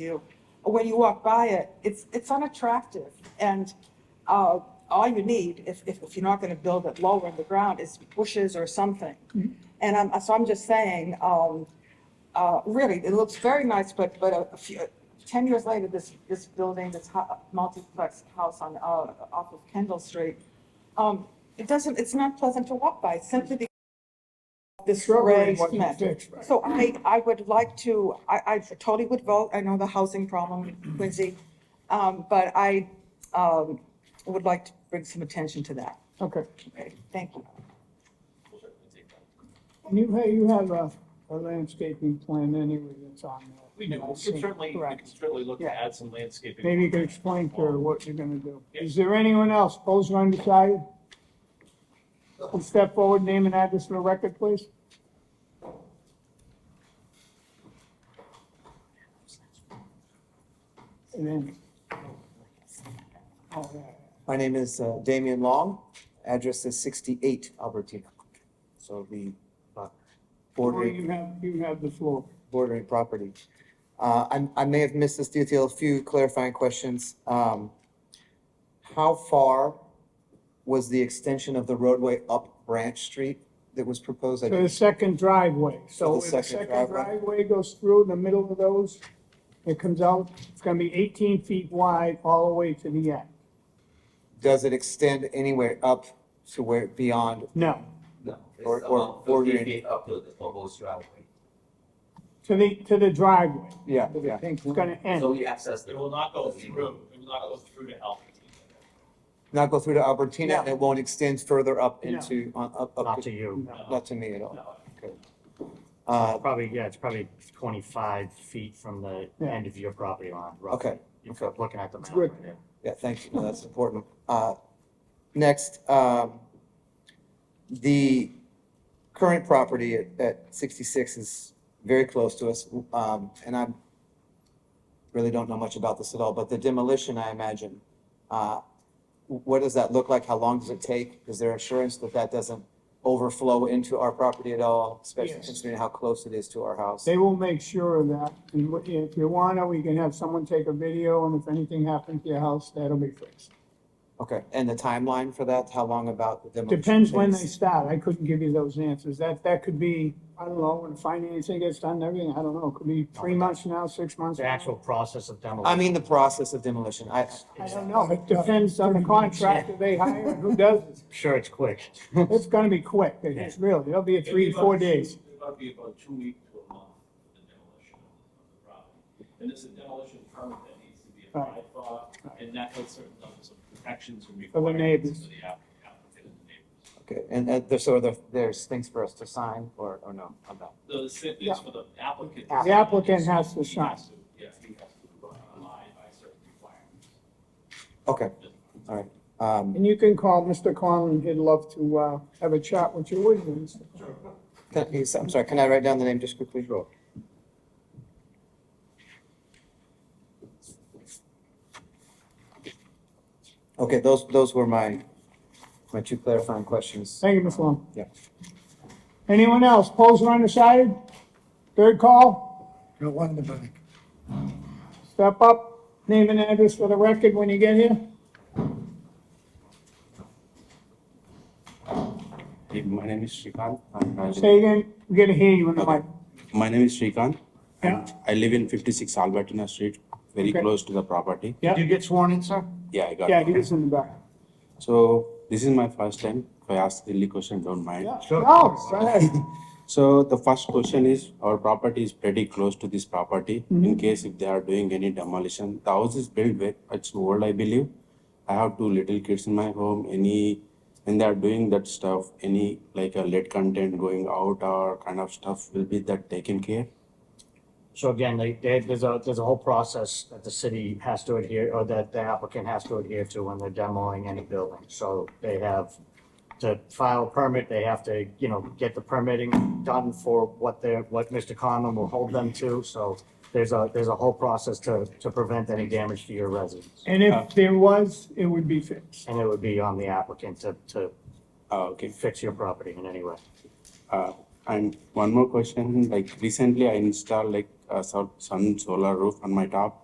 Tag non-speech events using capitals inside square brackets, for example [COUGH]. you, when you walk by it, it's, it's unattractive. And uh, all you need, if, if if you're not going to build it lower in the ground, is bushes or something. And I'm, so I'm just saying, um, uh, really, it looks very nice, but, but a few, 10 years later, this, this building, this hu- multiplex house on, uh, off of Kendall Street, um, it doesn't, it's not pleasant to walk by simply because of this gray cement. So I, I would like to, I, I totally would vote, I know the housing problem, Quincy, um, but I, um, would like to bring some attention to that. Okay, Okay, thank you. and you, hey, you have a, a landscaping plan anyway that's on there. We do, we can certainly, we Correct. can certainly look to Yeah. add some landscaping. Um, Maybe you could explain to her what you're gonna do. Is there anyone else, those are undecided? Please Step forward, name and address for the record, please. And then. Oh, yeah. My name is uh, Damian Long, address is sixty-eight Albertina. So the uh, Or bordering, you have, you have the floor. bordering property. Uh, I'm- I, may have missed this detail, a few clarifying questions. Um, How far was the extension of the roadway up Branch Street that was proposed? I To the didn't- second driveway, To so the if the second second driveway. driveway goes through the middle of those, it comes out, it's gonna be eighteen feet wide all the way to the end. Does it extend anywhere up to where, beyond, No, No, it's Or- or- about or fifty your- feet up to the proposed driveway. to the, to the driveway, yeah, to the yeah. pink, it's gonna So end. we access the. It will not go through, it will not go through to Alpine. Not go through to Albertina and it won't extend further up No. into, on, up, up. Not to you. No. Not to me at all. Um, No, Uh, Probably, yeah, it's probably twenty-five feet from the Yeah. end of your property line, roughly. Okay, If you're looking at the map Good. right there. yeah, thank you, no, that's important. Uh, Next, um, the current property at, at 66 is very close to us, um, and I really don't know much about this at all, but the demolition, I imagine, uh, what does that look like? How long does it take? Is there assurance that that doesn't overflow into our property at all, especially Yes. considering how close it is to our house? They will make sure of that, and wh- if you wanna, we can have someone take a video, and if anything happens to your house, that'll be fixed. Okay, and the timeline for that, how long about the demolition? Depends when they takes? start, I couldn't give you those answers, that, that could be, I don't know, when financing gets done and everything, I don't know, it could be three months from now, six months. The from now. actual process of demolition. I mean, the process of demolition. I, I don't know, it depends on the contractor they hire and who does it. Sure, it's quick. [LAUGHS] It's gonna be quick, it's really, it'll be three, four days. It's about be about two weeks to a month for the demolition of the property. And it's a demolition permit that needs to be applied for, and that has certain levels of protections and the requirements neighbors. for the app- applicant and the neighbors. okay, and, and there's, so there, there's things for us to sign or, or no, I'm not. The same Yeah. things for the applicant. The applicant has to He has sign. to- Yes, he has to abide by certain requirements. Okay, um, And you can call Mr. Conlon, he'd love to, uh, have a chat with you, wouldn't you? Mr. Conlon? can, is- I'm sorry, can I write down the name just quickly? Sure. Okay, those, those were my, my two clarifying questions. Thank you, Ms. Long. Yeah. Anyone else, polls are undecided? Third call, Got one in the back. step up, name and address for the record when you get here. Hey, My name is Shrikant. I'm a- Say again, we gotta hear you in the mic. My name is Shrikant. Yeah. I live in 56 Albertina Street, very Okay. close to the property. Yeah. Did you get sworn in, sir? Yeah, I got Yeah, it. he was in the back. So this is my first time. If I ask silly question, don't mind. Yeah. No, go ahead. So the first question is, our property is pretty close to this property. In case if they are doing any demolition, the house is built with, it's old, I believe. I have two little kids in my home, any, and they are doing that stuff, any like a lead content going out or kind of stuff will be that taken care? So again, they, they, there's a, there's a whole process that the city has to adhere, or that the applicant has to adhere to when they're demoing any building. So they have to file a permit, they have to, you know, get the permitting done for what they're, what Mr. Conlon will hold them to. So there's a, there's a whole process to, to prevent any damage to your residence. And if there was, it would be fixed. And it would be on the applicant to, to Ah, okay. fix your property in any way. Uh, and one more question, like recently I installed like uh, some- some solar roof on my top.